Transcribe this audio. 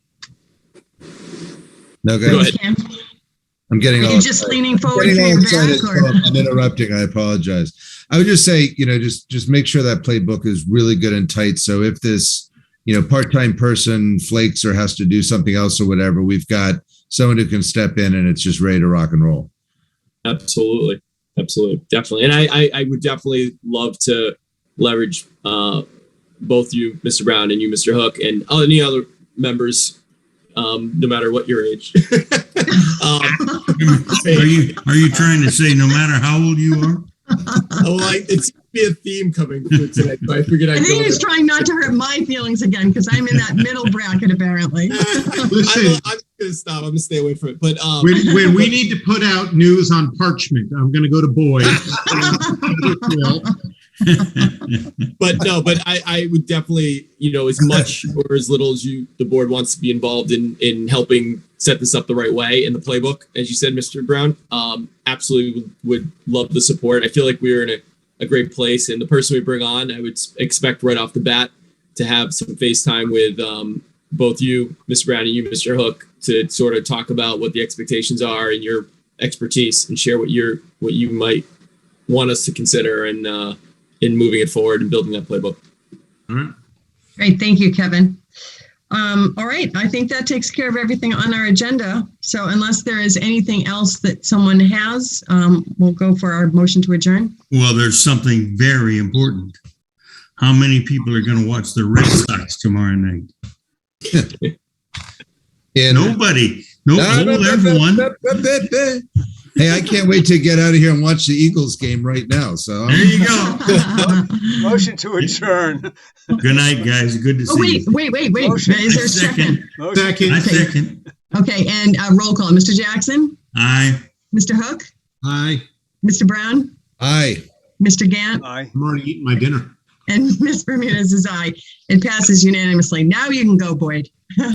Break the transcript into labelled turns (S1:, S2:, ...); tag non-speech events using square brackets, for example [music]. S1: No, go ahead.
S2: Sam?
S1: I'm getting
S2: Are
S1: all.
S2: you just leaning forward for
S1: Getting all
S2: your
S1: excited,
S2: back
S1: so
S2: or?
S1: I'm interrupting. I apologize. I would just say, you know, just just make sure that playbook is really good and tight. So if this, you know, part-time person flakes or has to do something else or whatever, we've got someone who can step in and it's just ready to rock and roll.
S3: Absolutely. Absolutely. Definitely. And I, I, I would definitely love to leverage uh, both you, Mr. Brown, and you, Mr. Hook, and any other members, um, no matter what your age. [laughs] um,
S4: Are you, are you trying to say no matter how old you are?
S3: oh, I, it seems to be a theme coming through tonight, so I figured
S2: I
S3: I'd
S2: think
S3: go
S2: he was
S3: with it.
S2: trying not to hurt my feelings again because I'm in that middle bracket apparently.
S3: I'm, I'm gonna stop. I'm gonna stay away from it. But um,
S5: When, when we need to put out news on parchment, I'm going to go to Boyd. Well,
S3: but no, but I, I would definitely, you know, as much or as little as you the board wants to be involved in in helping set this up the right way in the playbook, as you said, Mr. Brown. Um, absolutely would, would love the support. I feel like we're in a, a great place, and the person we bring on, I would s- expect right off the bat to have some FaceTime with um, both you, Mr. Brown, and you, Mr. Hook, to sort of talk about what the expectations are and your expertise, and share what you're what you might want us to consider and. Uh, in moving it forward and building that playbook.
S2: Great, thank you, Kevin. Um, all right, I think that takes care of everything on our agenda. So unless there is anything else that someone has, um, we'll go for our motion to adjourn.
S4: Well, there's something very important. How many people are going to watch the Red Sox tomorrow night?
S1: And
S4: Nobody. No, poll everyone.
S1: Hey, I can't wait to get out of here and watch the Eagles game right now. So
S4: There
S1: I'm-
S2: [laughs]
S4: you go.
S2: oh,
S6: Motion to adjourn.
S4: Good night, guys. Good to see
S2: wait,
S4: you.
S2: wait, wait, wait. Is there a second?
S6: Motion
S4: I
S5: Second,
S4: second.
S2: Okay, and uh, roll call. Mr. Jackson,
S4: Aye.
S2: Mr. Hook,
S5: hi.
S2: Mr. Brown,
S1: aye.
S2: Mr. Gant,
S6: aye.
S5: I'm
S2: [laughs]
S5: already eating my dinner.
S2: and Ms. Bermudez is aye. It passes unanimously. Now you can go, Boyd.